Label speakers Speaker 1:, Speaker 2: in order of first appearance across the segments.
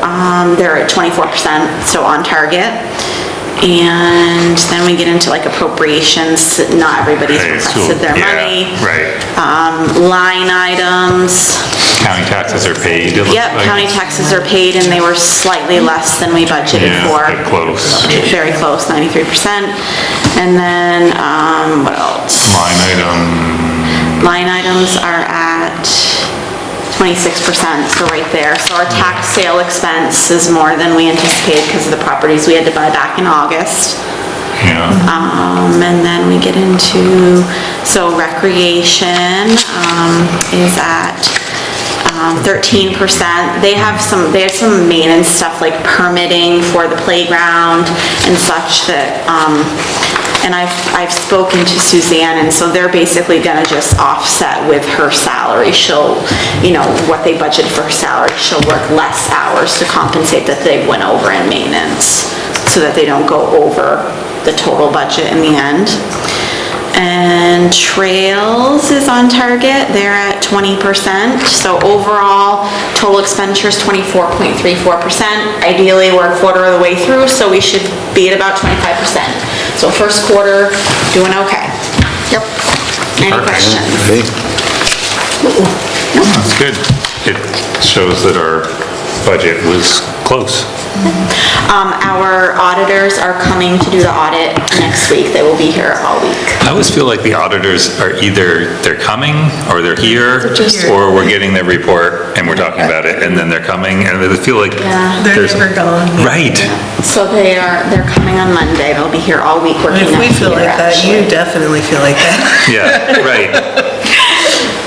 Speaker 1: Um, they're at 24%, so on target. And then we get into like appropriations, not everybody's
Speaker 2: Right, so-
Speaker 1: requested their
Speaker 2: yeah,
Speaker 1: money.
Speaker 2: Right.
Speaker 1: Um, line items,
Speaker 2: County taxes are paid. it looks
Speaker 1: yep,
Speaker 2: like.
Speaker 1: county taxes are paid and they were slightly less than we budgeted
Speaker 2: Yeah,
Speaker 1: for.
Speaker 2: they're close.
Speaker 1: Very close, 93%. And then, um, what else?
Speaker 2: Line item,
Speaker 1: line items are at 26%, so right there. So our tax sale expense is more than we anticipated because of the properties we had to buy back in August.
Speaker 2: yeah,
Speaker 1: Um, and then we get into, so recreation, um, is at, um, thirteen percent. They have some, they have some maintenance stuff like permitting for the playground and such that, um, and I've, I've spoken to Suzanne, and so they're basically gonna just offset with her salary. She'll, you know, what they budget for her salary, she'll work less hours to compensate that they went over in maintenance so that they don't go over the total budget in the end. And trails is on target, they're at 20%, so overall, total expenditures 24.34%. Ideally, we're a quarter of the way through, so we should be at about 25%. So first quarter, doing okay. Yep. Any
Speaker 2: Perfect.
Speaker 1: questions?
Speaker 3: Okay,
Speaker 2: that's good. It shows that our budget was close.
Speaker 1: Um, our auditors are coming to do the audit next week, they will be here all week.
Speaker 2: I always feel like the auditors are either, they're coming, or they're
Speaker 1: Mm-hmm.
Speaker 2: here, or we're getting their report, and we're talking about it, and then they're coming, and I feel like
Speaker 1: Yeah.
Speaker 4: They're
Speaker 2: there's...
Speaker 4: never gone.
Speaker 2: Right,
Speaker 1: So they are, they're coming on Monday, they'll be here all week working
Speaker 4: If
Speaker 1: on
Speaker 4: we feel
Speaker 1: here,
Speaker 4: like that, you
Speaker 1: actually.
Speaker 4: definitely feel like that.
Speaker 2: yeah, right,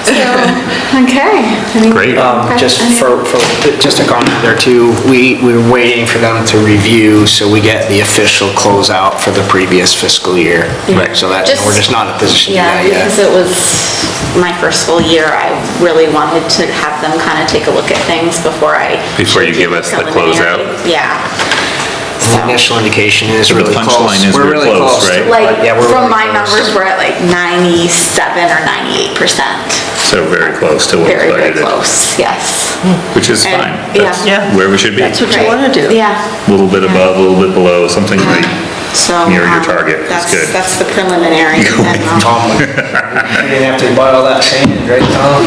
Speaker 1: So, Okay. Any
Speaker 2: Great. Um,
Speaker 1: questions?
Speaker 5: Just for, for, just a comment there too, we, we're waiting for them to review, so we get the official closeout for the previous fiscal year.
Speaker 2: Right.
Speaker 5: So that, we're just not in a position to do
Speaker 1: Yeah,
Speaker 5: that
Speaker 1: because
Speaker 5: yet.
Speaker 1: it was my first full year, I really wanted to have them kind of take a look at things before I.
Speaker 2: Before you give us the
Speaker 1: preliminary.
Speaker 2: closeout?
Speaker 1: Yeah.
Speaker 5: The initial indication is
Speaker 2: the
Speaker 5: really close.
Speaker 2: punchline is we're
Speaker 5: really
Speaker 2: close,
Speaker 5: to
Speaker 2: right?
Speaker 5: it,
Speaker 1: Like,
Speaker 5: but yeah, we're
Speaker 1: from
Speaker 5: really
Speaker 1: my
Speaker 5: close.
Speaker 1: numbers, we're at like 97 or 98%.
Speaker 2: so very close to what we
Speaker 1: Very, very
Speaker 2: budgeted,
Speaker 1: close, yes.
Speaker 2: which is
Speaker 1: And-
Speaker 2: fine.
Speaker 1: yeah.
Speaker 2: That's
Speaker 4: Yeah.
Speaker 2: Where we should be.
Speaker 4: That's what you
Speaker 1: Right.
Speaker 4: wanna do.
Speaker 1: Yeah.
Speaker 2: A little bit above, a little bit below, something like
Speaker 1: So.
Speaker 2: near your
Speaker 1: um,
Speaker 2: target is
Speaker 1: that's-
Speaker 2: good.
Speaker 1: That's the preliminary. and um, then I'll-
Speaker 5: Tom, we didn't have to buy all that sand, right, Tom?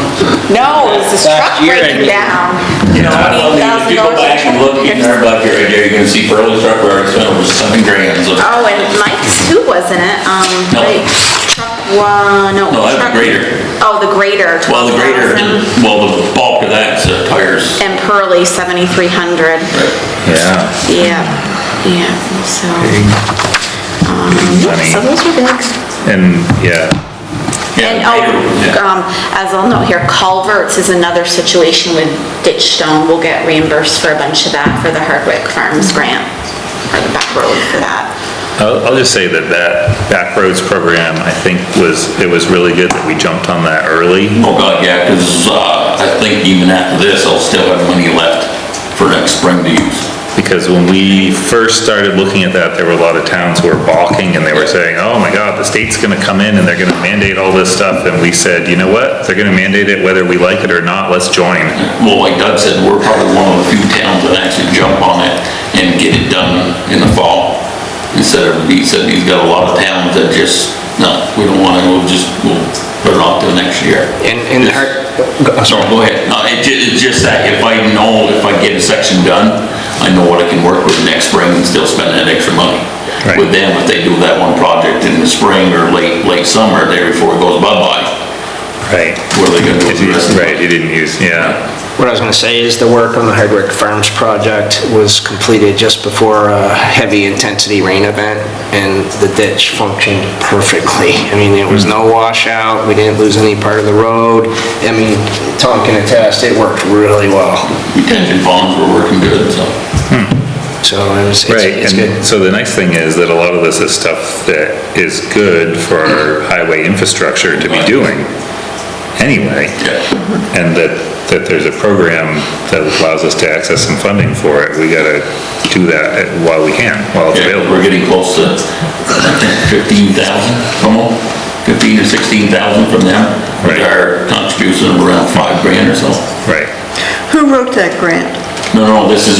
Speaker 1: No, it was this
Speaker 5: Last
Speaker 1: truck
Speaker 5: year I
Speaker 1: breaking
Speaker 5: did.
Speaker 1: down.
Speaker 6: I mean, If you go
Speaker 1: $28,000
Speaker 6: back and look in our budget right there, you can see Pearl's truck where it's over seven grand, so.
Speaker 1: Oh, and Mike's too, wasn't it? Um,
Speaker 6: No.
Speaker 1: wait, truck one, no.
Speaker 6: No, that's the
Speaker 1: truck-
Speaker 6: grader.
Speaker 1: Oh, the grader,
Speaker 6: Well, the greater,
Speaker 1: 12,000.
Speaker 6: well, the bulk of that's uh, tires.
Speaker 1: And Pearly, 7,300.
Speaker 2: Yeah.
Speaker 1: Yeah, yeah, so, um, so
Speaker 2: Money.
Speaker 1: those were big.
Speaker 2: And, yeah,
Speaker 1: And,
Speaker 6: Yeah, greater,
Speaker 1: oh,
Speaker 6: yeah.
Speaker 1: um, as I'll note here, culverts is another situation with ditch stone. We'll get reimbursed for a bunch of that for the Hardwick Farms grant, or the back road for that.
Speaker 2: I'll, I'll just say that that back roads program, I think was, it was really good that we jumped on that early.
Speaker 6: Oh, God, yeah, because I think even after this, I'll still have money left for next spring to use.
Speaker 2: Because when we first started looking at that, there were a lot of towns who were balking and they were saying, oh my God, the state's gonna come in and they're gonna mandate all this stuff. And we said, you know what? They're gonna mandate it whether we like it or not, let's join.
Speaker 6: Well, like Doug said, we're probably one of the few towns that actually jump on it and get it done in the fall. Instead of, he said he's got a lot of towns that just, no, we don't want to, we'll just, we'll put it off till next year.
Speaker 5: And, and the hard- go- I'm
Speaker 6: So
Speaker 5: sorry.
Speaker 6: go ahead. No, it ju- it's just that if I know, if I get a section done, I know what I can work with next spring and still spend that extra money.
Speaker 2: Right.
Speaker 6: With them, if they do that one project in the spring or late, late summer, there before it goes bye-bye,
Speaker 2: Right.
Speaker 6: what are they gonna do with the rest of it?
Speaker 2: Right, you didn't use, yeah.
Speaker 5: What I was going to say is the work on the Hardwick Farms project was completed just before a heavy-intensity rain event, and the ditch functioned perfectly. I mean, there was no washout, we didn't lose any part of the road. I mean, Tom can attest, it worked really well.
Speaker 6: Retention bonds were working good, so.
Speaker 5: So it was, it's-
Speaker 2: Right,
Speaker 5: it's
Speaker 2: and
Speaker 5: good.
Speaker 2: so the nice thing is that a lot of this is stuff that is good for our highway infrastructure to be doing anyway. And that, that there's a program that allows us to access some funding for it, we gotta do that while we can, while it's
Speaker 6: Yeah, we're
Speaker 2: available.
Speaker 6: getting close to, I think, fifteen thousand from them, fifteen to sixteen thousand from them.
Speaker 2: Right.
Speaker 6: With our contribution of around five grand or so.
Speaker 2: Right.
Speaker 4: Who wrote that grant?
Speaker 6: No, no, this is